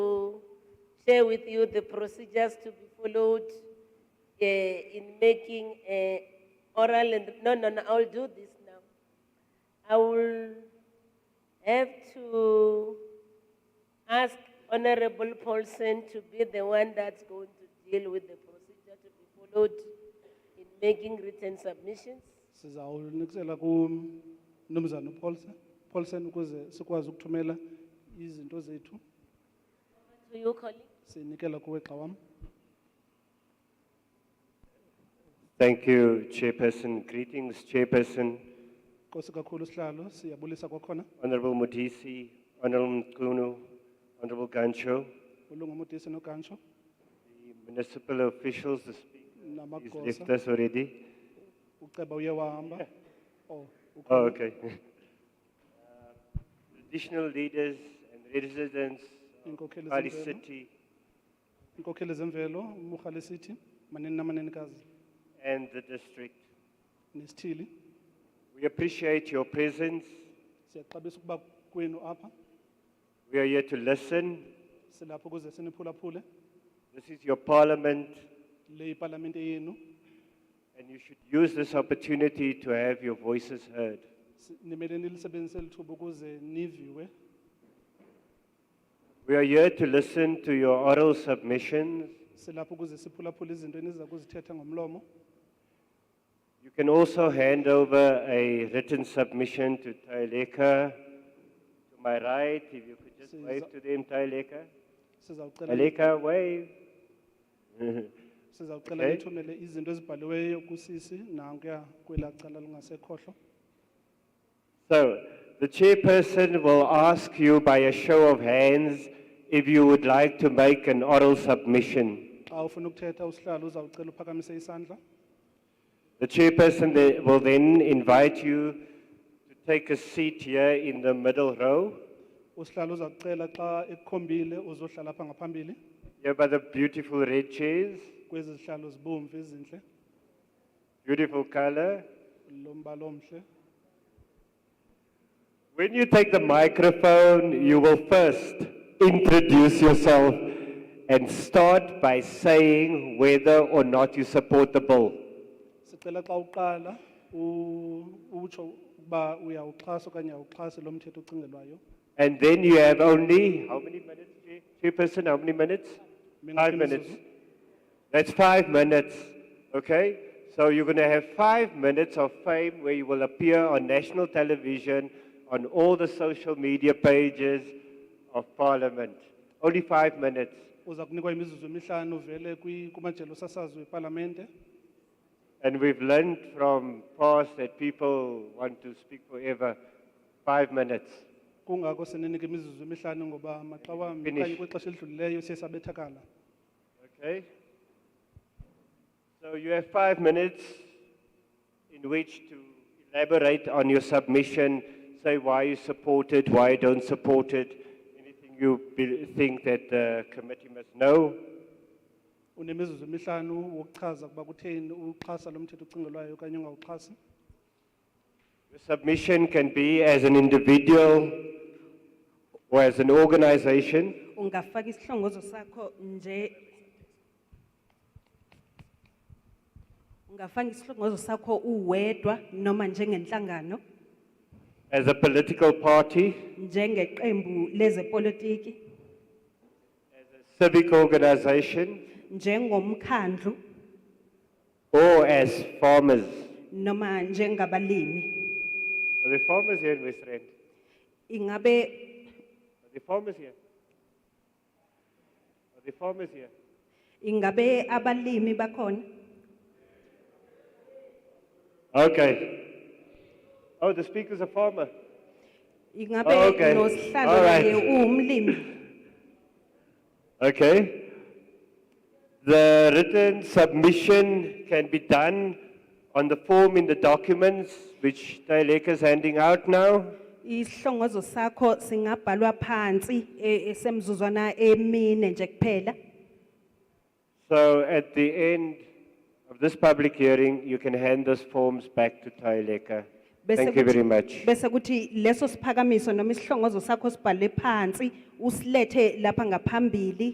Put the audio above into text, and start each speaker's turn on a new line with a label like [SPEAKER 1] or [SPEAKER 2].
[SPEAKER 1] share with you the procedures to be followed eh, in making eh, oral and, no, no, no, I'll do this now. I will have to ask Honorable Paulson to be the one that's going to deal with the procedure to be followed in making written submissions.
[SPEAKER 2] Sizawuniksela kumnumzana Paulson, Paulson ukuze sikwazi ukuthumela izinto zethu.
[SPEAKER 1] To you, colleague.
[SPEAKER 2] Sinikela kuwe xawam.
[SPEAKER 3] Thank you, Chairperson. Greetings, Chairperson,
[SPEAKER 2] Kosi kakhulu sihlalo siyabulisa kwakhona.
[SPEAKER 3] Honorable Modisi, Honorable Mkunu, Honorable Gancho,
[SPEAKER 2] Ulungumutisi nokancho.
[SPEAKER 3] the municipal officials, the speaker
[SPEAKER 2] Namagosa.
[SPEAKER 3] is left us already.
[SPEAKER 2] Uceba uye wahamba. Oh, ukhona.
[SPEAKER 3] Oh, okay. Uh, Traditional leaders and residents
[SPEAKER 2] Iinkokheli
[SPEAKER 3] of Kali
[SPEAKER 2] zemvelo.
[SPEAKER 3] City
[SPEAKER 2] Inkokeli zemvelo, Mukhale City, manini na manenikazi,
[SPEAKER 3] and the district.
[SPEAKER 2] nesithili.
[SPEAKER 3] We appreciate your presence.
[SPEAKER 2] Siyaxabisa ukuba kwenu apha.
[SPEAKER 3] We are here to listen.
[SPEAKER 2] Silapho ukuze siniphulaphule
[SPEAKER 3] This is your parliament,
[SPEAKER 2] le ipalamente yenu.
[SPEAKER 3] and you should use this opportunity to have your voices heard.
[SPEAKER 2] Si- Nimele nilisebenzise lithuba ukuze niviwe.
[SPEAKER 3] We are here to listen to your oral submissions.
[SPEAKER 2] Silapho ukuze siphulaphule izinto eniza kuzithetha ngomlomo.
[SPEAKER 3] You can also hand over a written submission to Taileka. To my right, if you could just wave to them, Taileka.
[SPEAKER 2] Sizawucela
[SPEAKER 3] Taileka, wave.
[SPEAKER 2] sizawucela
[SPEAKER 3] Okay.
[SPEAKER 2] nithumele izinto ezibhaliweyo kusisi nankuya kwelaa cala lungasekhohlo.
[SPEAKER 3] So, the chairperson will ask you by a show of hands if you would like to make an oral submission.
[SPEAKER 2] Xa ufuna ukuthetha usihlalo uzawucela uphakamise isandla.
[SPEAKER 3] The chairperson the- will then invite you to take a seat here in the middle row,
[SPEAKER 2] Usihlalo uzawucela xa ekukhombile uzohlala apha ngaphambili
[SPEAKER 3] here by the beautiful red chairs,
[SPEAKER 2] kwezi zihlalo zibomvu ezintle
[SPEAKER 3] beautiful color.
[SPEAKER 2] lombala omhle.
[SPEAKER 3] When you take the microphone, you will first introduce yourself and start by saying whether or not you support the bill.
[SPEAKER 2] Sicela xa uqala u- utsho ukuba uyawuxhasa okanye awuxhasi lo mthetho ucingelwayo.
[SPEAKER 3] And then you have only, how many minutes, Chair- Chairperson, how many minutes?
[SPEAKER 2] Mina
[SPEAKER 3] Five
[SPEAKER 2] Kemisozo.
[SPEAKER 3] minutes. That's five minutes, okay? So you're gonna have five minutes of fame where you will appear on national television, on all the social media pages of parliament. Only five minutes.
[SPEAKER 2] Uza kunikwa imizuzu emihlanu vele kwi- kumajelo sasazwe epalamente.
[SPEAKER 3] And we've learned from past that people want to speak forever. Five minutes.
[SPEAKER 2] Kungako sininika imizuzu emihlanu ngoba maxa wambi
[SPEAKER 3] Finish.
[SPEAKER 2] okanye kwixesha elidlulileyo siye sabethakala.
[SPEAKER 3] Okay? So you have five minutes in which to elaborate on your submission, say why you support it, why you don't support it, anything you be- think that the committee must know.
[SPEAKER 2] Unemizuzu emihlanu wokuchaza ukuba kutheni uxhasa lo mthetho ucingelwayo okanye ungawuxhasi.
[SPEAKER 3] Your submission can be as an individual or as an organization.
[SPEAKER 4] ungafaka isihlongozo sakho nje ungafaka isihlongozo sakho uwedwa noma njengenhlangano
[SPEAKER 3] As a political party,
[SPEAKER 4] njengeqembu lezepolitiki
[SPEAKER 3] as a civic organization,
[SPEAKER 4] njengomkhandlu
[SPEAKER 3] or as farmers.
[SPEAKER 4] noma njengabalimi
[SPEAKER 3] Are the farmers here in West Rand?
[SPEAKER 4] ingabe
[SPEAKER 3] Are the farmers here? Are the farmers here?
[SPEAKER 4] ingabe abalimi bakhona
[SPEAKER 3] Okay. Oh, the speaker's a farmer.
[SPEAKER 4] ingabe
[SPEAKER 3] Oh, okay.
[SPEAKER 4] nosihlalo
[SPEAKER 3] All right.
[SPEAKER 4] naye uwumlimi
[SPEAKER 3] Okay. The written submission can be done on the form in the documents which Tayleka is handing out now.
[SPEAKER 4] isihlongozo sakho singabhalwa phansi eh, esemzuzwana emine nje kuphela
[SPEAKER 3] So at the end of this public hearing, you can hand those forms back to Tayleka.
[SPEAKER 4] Bese
[SPEAKER 3] Thank you
[SPEAKER 4] kuthi-
[SPEAKER 3] very much.
[SPEAKER 4] Bese kuti leso siphakamiso noma isihlongozo sakho sibhale phansi usilethe lapha ngaphambili